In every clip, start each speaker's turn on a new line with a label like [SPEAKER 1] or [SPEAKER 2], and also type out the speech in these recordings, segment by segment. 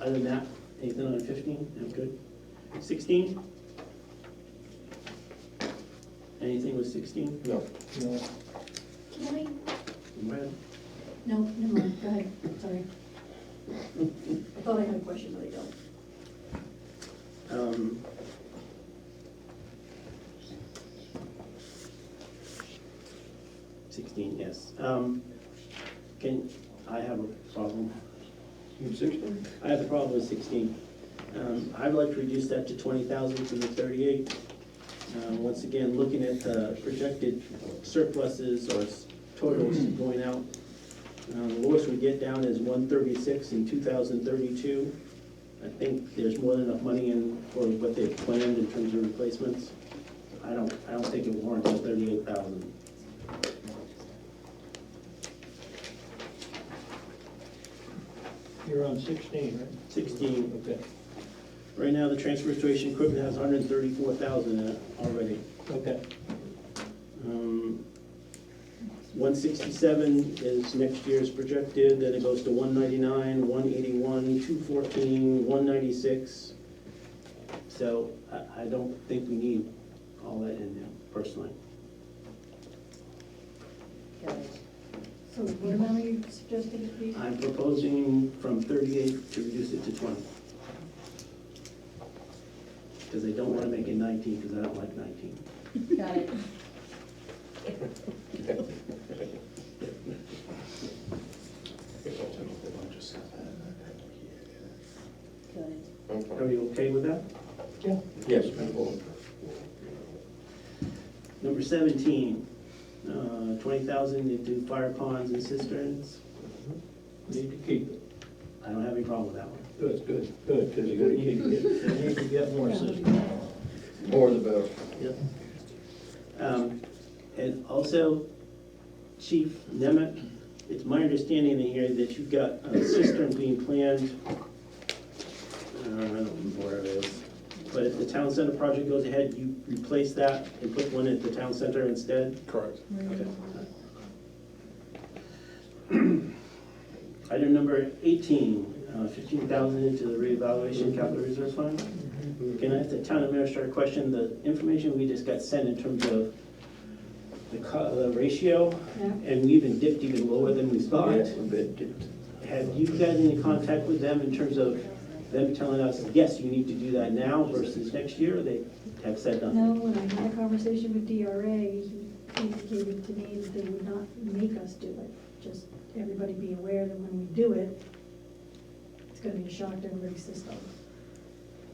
[SPEAKER 1] Other than that, anything on fifteen? I'm good. Sixteen? Anything with sixteen?
[SPEAKER 2] No.
[SPEAKER 3] No,
[SPEAKER 4] Can I,
[SPEAKER 1] Well,
[SPEAKER 4] no, never mind, go ahead, sorry. I thought I had a question, but I don't.
[SPEAKER 1] um, Sixteen, yes. Um, Can, I have a problem.
[SPEAKER 2] Sixteen?
[SPEAKER 1] I have a problem with sixteen. Um, I'd like to reduce that to twenty thousand from the thirty-eight. Um, Once again, looking at the projected surpluses or s- totals going out, um, the lowest we get down is one thirty-six in two thousand thirty-two. I think there's more than enough money in for what they've planned in terms of replacements. I don't, I don't think it warrants thirty-eight thousand.
[SPEAKER 3] you're on sixteen, right?
[SPEAKER 1] Sixteen,
[SPEAKER 3] Okay,
[SPEAKER 1] right now, the transfer station equipment has hundred and thirty-four thousand in it already.
[SPEAKER 3] okay.
[SPEAKER 1] Um, 167 is next year's projected, then it goes to 199, 181, 214, 196. So I, I don't think we need all that in there personally.
[SPEAKER 4] So what amount are you suggesting, please?
[SPEAKER 1] I'm proposing from 38 to reduce it to 20. Because I don't want to make it 19, because I don't like 19.
[SPEAKER 5] Got it. Got it.
[SPEAKER 1] Are you okay with that?
[SPEAKER 2] Yes, Madam Board.
[SPEAKER 1] Number 17, uh, 20,000 into fire ponds and cisterns.
[SPEAKER 3] Need to keep it.
[SPEAKER 1] I don't have any problem with that one.
[SPEAKER 3] Good, good, good, because we need to get, we need to get more systems.
[SPEAKER 2] More the better.
[SPEAKER 3] Yep.
[SPEAKER 1] Um, And also, Chief Nemec, it's my understanding in here that you've got a cistern being planned. uh, I don't know where it is, but if the town center project goes ahead, you replace that and put one at the town center instead?
[SPEAKER 2] Correct.
[SPEAKER 1] Okay. Item number 18, uh, 15,000 into the reevaluation capital reserve fund. Can I ask the town administrator a question? The information we just got sent in terms of the co- the ratio,
[SPEAKER 4] Yeah.
[SPEAKER 1] and we even dipped even lower than we thought.
[SPEAKER 2] Yes, a bit dipped.
[SPEAKER 1] Have you got any contact with them in terms of them telling us, yes, you need to do that now versus next year? or They have said nothing?
[SPEAKER 4] No, when I had a conversation with DRA, he indicated to me that they would not make us do it. Just everybody be aware that when we do it, it's gonna be a shock to everybody's system.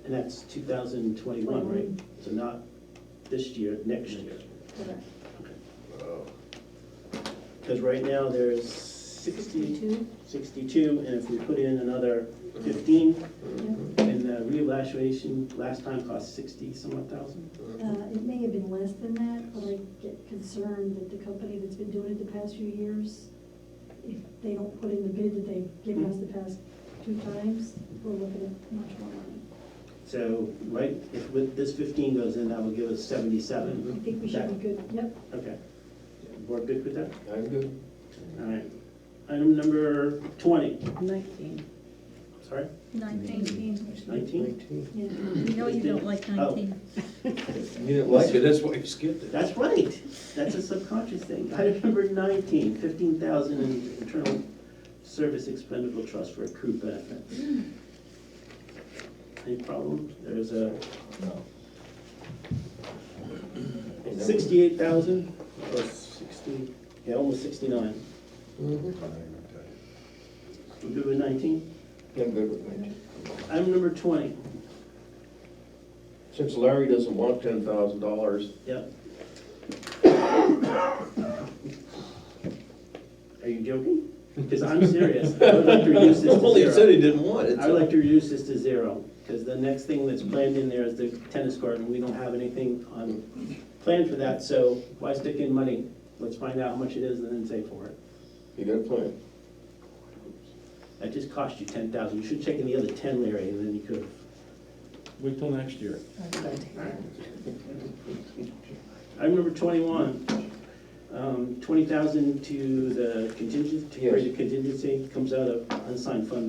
[SPEAKER 1] And that's 2021, right?
[SPEAKER 4] Mm-hmm.
[SPEAKER 1] So not this year, next year.
[SPEAKER 4] Correct.
[SPEAKER 1] Because right now, there's 60,
[SPEAKER 4] Sixty-two?
[SPEAKER 1] 62, and if we put in another 15,
[SPEAKER 4] Yeah.
[SPEAKER 1] and the reevaluation last time cost 60 some odd thousand.
[SPEAKER 4] Uh, It may have been less than that, but I get concerned that the company that's been doing it the past few years, if they don't put in the bid that they've given us the past two times, we're looking at much more money.
[SPEAKER 1] So, right, if with this 15 goes in, that will give us 77.
[SPEAKER 4] I think we should be good, yep,
[SPEAKER 1] Okay. Board good with that?
[SPEAKER 2] I'm good.
[SPEAKER 1] All right. Item number 20,
[SPEAKER 5] Nineteen.
[SPEAKER 1] sorry,
[SPEAKER 5] Nineteen.
[SPEAKER 1] 19?
[SPEAKER 4] yeah.
[SPEAKER 5] You know you don't like
[SPEAKER 1] Oh.
[SPEAKER 5] nineteen.
[SPEAKER 2] You didn't like it, that's why you skipped it.
[SPEAKER 1] That's right, that's a subconscious thing. Item number 19, 15,000 in internal service expendable trust for accrued benefits. Any problem? There's a
[SPEAKER 3] No.
[SPEAKER 1] 68,000, or 60, yeah, almost 69.
[SPEAKER 2] Mm-hmm.
[SPEAKER 1] We good with 19?
[SPEAKER 2] I'm good with nineteen.
[SPEAKER 1] Item number 20,
[SPEAKER 2] Since Larry doesn't want ten thousand dollars,
[SPEAKER 1] yep. Are you joking? Because I'm serious. I would like to reduce this to
[SPEAKER 2] well, he
[SPEAKER 1] zero.
[SPEAKER 2] said he didn't want it.
[SPEAKER 1] I would like to reduce this to zero, because the next thing that's planned in there is the tennis court, and we don't have anything on, planned for that, so why stick in money? Let's find out how much it is and then save for it.
[SPEAKER 2] You got a plan?
[SPEAKER 1] That just cost you ten thousand, you should check in the other ten, Larry, and then you could.
[SPEAKER 6] Wait till next year.
[SPEAKER 1] Item number twenty-one, um, twenty thousand to the contingency, to
[SPEAKER 2] Yes.
[SPEAKER 1] create a contingency, comes out of unsigned fund